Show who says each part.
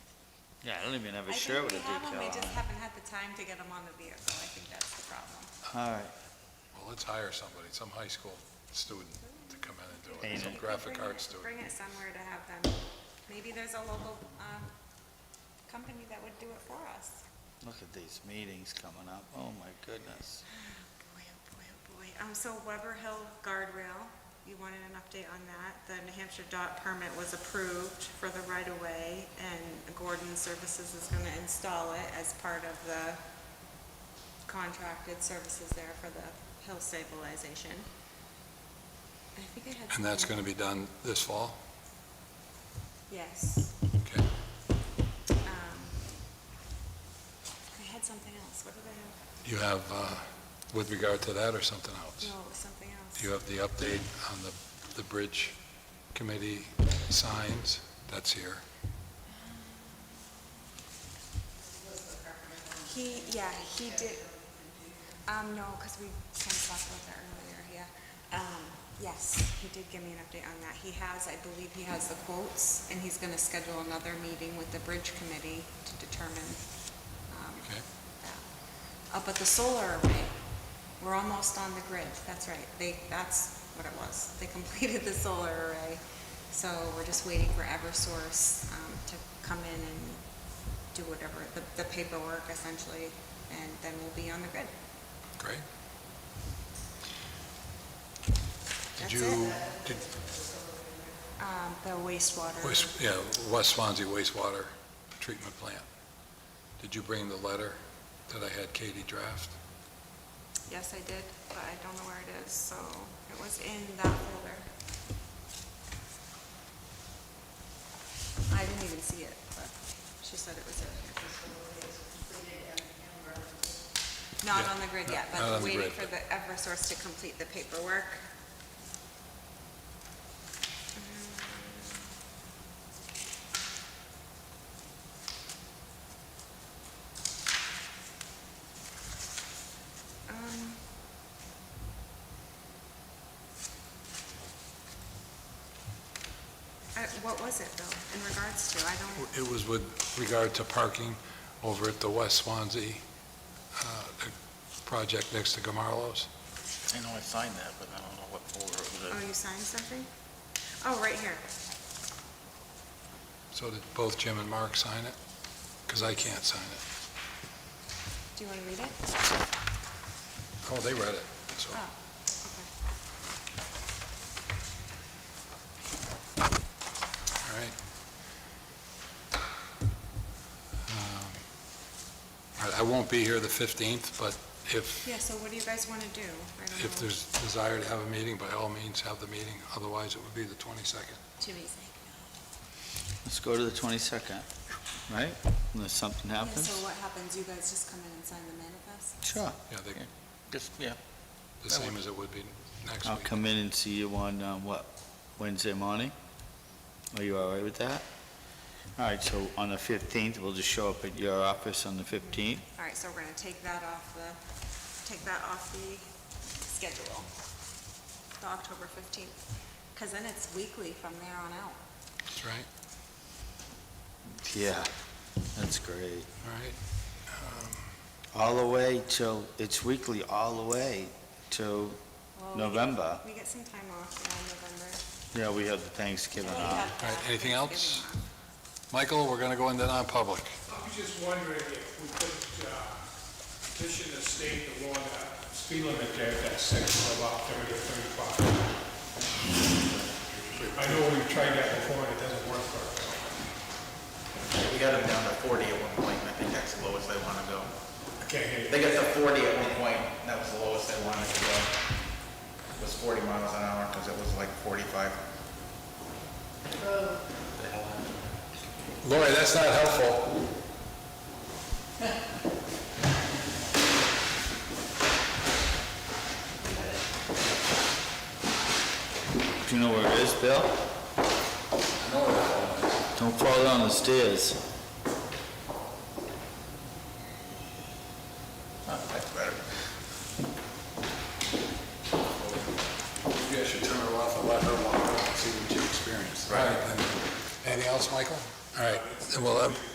Speaker 1: Yeah, I don't even have
Speaker 2: I
Speaker 1: a shirt
Speaker 2: think
Speaker 1: with a
Speaker 2: we have
Speaker 1: decal
Speaker 2: them, we
Speaker 1: on it.
Speaker 2: just haven't had the time to get them on the vehicle, I think that's the problem.
Speaker 1: All right,
Speaker 3: Well, let's hire somebody, some high school student to come in and do it, some
Speaker 1: Paint it.
Speaker 3: graphic
Speaker 2: Bring
Speaker 3: arts
Speaker 2: it-
Speaker 3: student.
Speaker 2: Bring it somewhere to have them, maybe there's a local, um, company that would do it for us.
Speaker 1: look at these meetings coming up, oh my goodness.
Speaker 2: Boy, oh boy, oh boy, um, so Weber Hill Guardrail, you wanted an update on that, the New Hampshire dot permit was approved for the right-of-way, and Gordon Services is gonna install it as part of the contracted services there for the hill stabilization. I think I had.
Speaker 3: And that's
Speaker 2: something-
Speaker 3: gonna be done this fall?
Speaker 2: Yes.
Speaker 3: Okay.
Speaker 2: Um, I had something else. What did I have?
Speaker 3: You have, uh, with regard to that or something else?
Speaker 2: No, it was something else.
Speaker 3: You have the update on the, the bridge committee signs? That's here.
Speaker 2: He, yeah, he did, um, no, because we kind of talked about that earlier, yeah. Um, yes, he did give me an update on that. He has, I believe he has the quotes, and he's gonna schedule another meeting with the bridge committee to determine, um,
Speaker 3: Okay.
Speaker 2: that. Uh, but the solar array, we're almost on the grid, that's right. They, that's what it was. They completed the solar array. So we're just waiting for Eversource, um, to come in and do whatever, the, the paperwork essentially, and then we'll be on the grid.
Speaker 3: Great. Did
Speaker 2: That's
Speaker 3: you,
Speaker 2: it.
Speaker 3: did,
Speaker 2: Um, the wastewater.
Speaker 3: West- yeah, West Swansea wastewater treatment plant. Did you bring the letter that I had Katie draft?
Speaker 2: Yes, I did, but I don't know where it is, so it was in that folder. I didn't even see it, but she said it was in here. Not
Speaker 3: Yeah,
Speaker 2: on the grid
Speaker 3: not-
Speaker 2: yet,
Speaker 3: not on
Speaker 2: but
Speaker 3: the
Speaker 2: waiting
Speaker 3: grid,
Speaker 2: for the Eversource to complete the paperwork. Um, I- What was it, though, in regards to? I don't,
Speaker 3: It was with regard to parking over at the West Swansea uh, project next to Gamarlos.
Speaker 4: I know I signed that, but I don't know what folder it was in.
Speaker 2: oh, you signed something? Oh, right here.
Speaker 3: So did both Jim and Mark sign it? Because I can't sign it.
Speaker 2: Do you want to read it?
Speaker 3: Oh, they read it, so.
Speaker 2: Oh, okay.
Speaker 3: All right. Um, all right, I won't be here the 15th, but if,
Speaker 2: Yeah, so what do you guys want to do? I don't
Speaker 3: if
Speaker 2: know.
Speaker 3: there's desire to have a meeting, by all means, have the meeting. Otherwise, it would be the 22nd.
Speaker 2: Jimmy's.
Speaker 1: Let's go to the twenty-second, right? Unless something
Speaker 2: Yeah,
Speaker 1: happens.
Speaker 2: so what happens? You guys just come in and sign the manifest?
Speaker 1: Sure,
Speaker 3: Yeah, they,
Speaker 4: Just, yeah,
Speaker 3: the same as it would be next
Speaker 1: I'll
Speaker 3: week.
Speaker 1: come in and see you on, um, what, Wednesday morning? Are you all right with that? All right, so on the fifteenth, we'll just show up at your office on the fifteenth.
Speaker 2: All right, so we're going to take that off the, take that off the schedule, the October 15th. Because then it's weekly from there on out.
Speaker 3: That's right.
Speaker 1: Yeah, that's great.
Speaker 3: All right.
Speaker 1: All the way till, it's weekly all the way till,
Speaker 2: Well, we get-
Speaker 1: November.
Speaker 2: We get some time off, yeah, in November.
Speaker 1: yeah, we have the Thanksgiving
Speaker 2: We
Speaker 1: off.
Speaker 2: have,
Speaker 3: All right,
Speaker 2: uh,
Speaker 3: anything else?
Speaker 2: Thanksgiving off.
Speaker 3: Michael, we're going to go into non-public.
Speaker 5: I was just wondering if we could uh, petition the state to want a speed limit there at that section of about 30 or 35. I know we've tried that before, and it doesn't work for us.
Speaker 4: we got them down to forty at one point, and I think that's the lowest they wanna go.
Speaker 5: I can't hear you.
Speaker 4: They got to forty at one point, and that was the lowest they wanted to go. It was forty miles an hour, because it was like forty-five.
Speaker 3: Lori, that's not helpful.
Speaker 1: Do you know where it is, Bill? Don't fall down the stairs.
Speaker 4: That's better.
Speaker 3: Maybe I should turn her off and let her walk around and see what she experienced. Right. Anything else, Michael? All right, well, um,